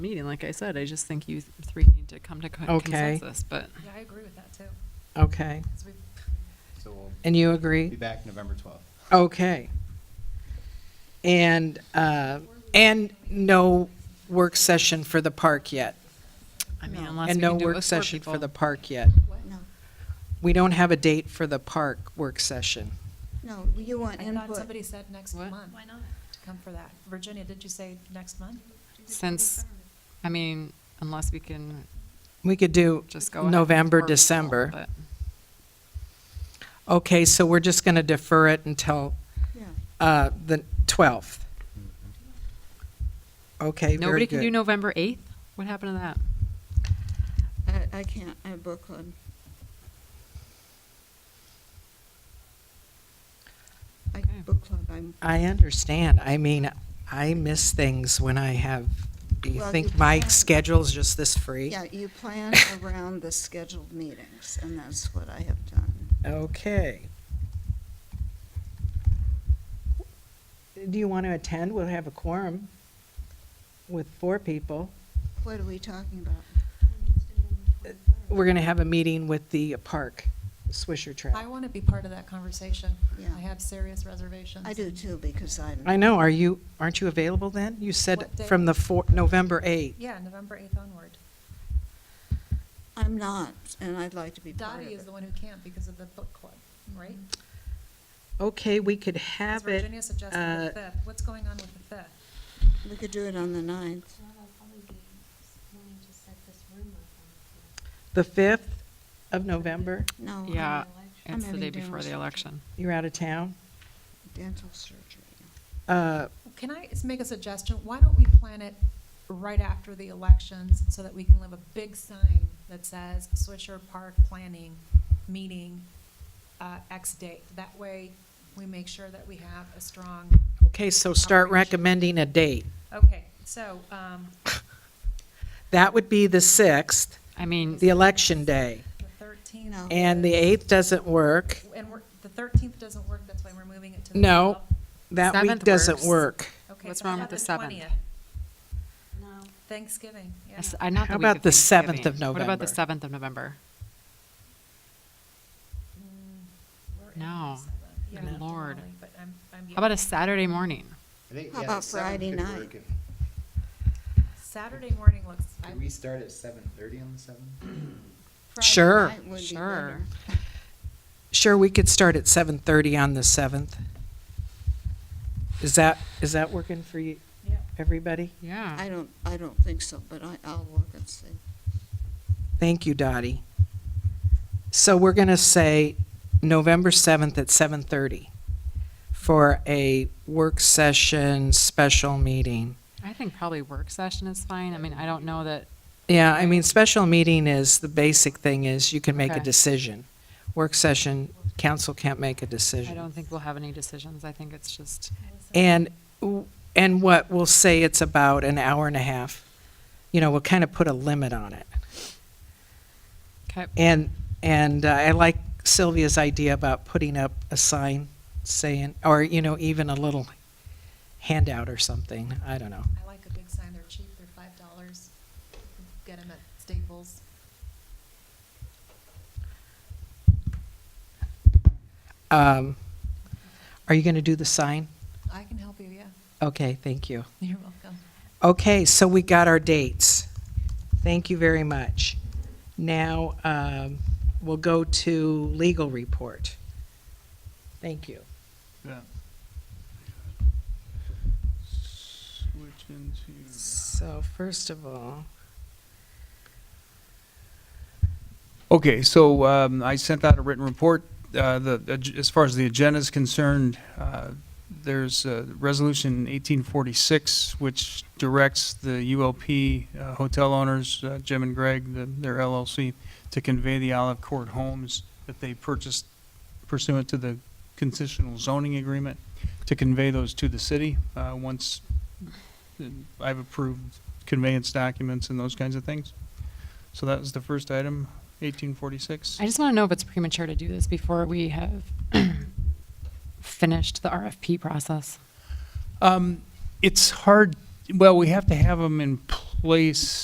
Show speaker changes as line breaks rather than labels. meeting, like I said, I just think you three need to come to co-
Okay.
consensus, but
Yeah, I agree with that too.
Okay,
'cause we-
So we'll
and you
be
agree?
back November 12th.
Okay. And, uh, and no work session for the park yet?
I mean,
No.
unless
And
we
no
can do it
work
with four
session for the
people.
park yet?
No,
We don't have a date for the park work session.
no, you want
I thought
input.
somebody said next
What?
month. Why not? To come for that. Virginia, did you say next month?
Since, I mean, unless we can
We could do
just go. ahead with
November,
four people,
December.
but
Okay, so we're just going to defer it until
Yeah.
uh, the 12th. Okay, very
Nobody can do
good.
November 8th? What happened to that?
I, I can't, I have book club. I,
Okay.
book club, I'm,
I understand. I mean, I miss things when I have, do you
Well,
think
you
my
can't-
schedule's just this free?
yeah, you plan around the scheduled meetings, and that's what I have done.
Okay. Do you want to attend? We'll have a quorum with four people.
What are we talking about?
We're going to have a meeting with the park, Swisher
I
Trail.
want to be part of that conversation.
Yeah.
I have serious reservations.
I do too, because I'm.
I know, are you, aren't you available then? You said
What day?
from the four, November 8th.
Yeah, November 8th onward.
I'm not, and I'd like to be part of
Dottie is
it.
the one who can't because of the book club, right? 'Cause
Okay, we could have it.
Virginia suggested
uh,
the 5th. What's going on with the 5th?
We could do it on the ninth.
Well, I'll probably be wanting to set this room up on the
The 5th of November,
No. I'm
Uh,
Yeah,
I'm
it's the
having
day before the
dinner.
election.
you're out of town.
Dental surgery.
Uh,
Can I s- make a suggestion? Why don't we plan it right after the elections so that we can have a big sign that says Swisher Park Planning Meeting uh, X date? That way, we make sure that we have a strong,
Okay, so start
Operation.
recommending a date.
okay, so, um,
That would be the 6th,
I mean,
the election day.
the thirteenth.
No.
And the 8th doesn't work.
And we're, the thirteenth doesn't work, that's why we're moving it to the.
No.
12th.
That week
Seventh
doesn't
works.
work.
Okay,
What's
so how
wrong with
about
the seventh?
20th?
No,
Thanksgiving,
I
yeah.
s- I- not
How
the week of
about the 7th of
Thanksgiving. What about
November?
the 7th of November?
Mm, we're in
No.
seventh. Yeah, I'm
Lord.
early, but I'm- I'm-
How about a Saturday morning?
I think,
How
yeah,
about
the 7th
Friday
could
night?
work if-
Saturday morning looks. I-
Could we start at 7:30 on the 7th?
Friday
Sure.
night would be
Sure.
better.
Sure, we could start at 7:30 on the 7th. Is that, is that working for you,
Yeah.
everybody?
Yeah.
I don't, I don't think so, but I, I'll look and see.
Thank you, Dottie. So we're going to say November 7th at 7:30 for a work session special meeting.
I think probably work session is fine. I mean, I don't know that,
Yeah, I mean, special meeting is, the basic thing is you can make a
Okay.
decision. Work session, council can't make a
I
decision.
don't think we'll have any decisions. I think it's just,
And, w- and what, we'll say it's about an hour and a half. You know, we'll kind of put a limit on it.
okay,
And, and uh, I like Sylvia's idea about putting up a sign saying, or, you know, even a little handout or something, I don't know.
I like a big sign, they're cheap, they're five dollars. Get them at Staples.
Um, Are you going to do the sign?
I can help you, yeah.
Okay, thank you.
You're welcome.
Okay, so we got our dates. Thank you very much. Now, um, we'll go to legal report. Thank you.
Yeah. Switch into.
So first of all,
Okay, so um, I sent out a written report. Uh, the ag- as far as the agenda is concerned, uh, there's uh, resolution 1846 which directs the ULP uh, hotel owners, uh, Jim and Greg, the, their LLC, to convey the Olive Court homes that they purchased pursuant to the conditional zoning agreement to convey those to the city uh, once uh, I've approved conveyance documents and those kinds of things. So that was the first item. 1846?
I just want to know if it's premature to do this before we have finished the RFP process.
Um, it's hard, well, we have to have them in, pl- place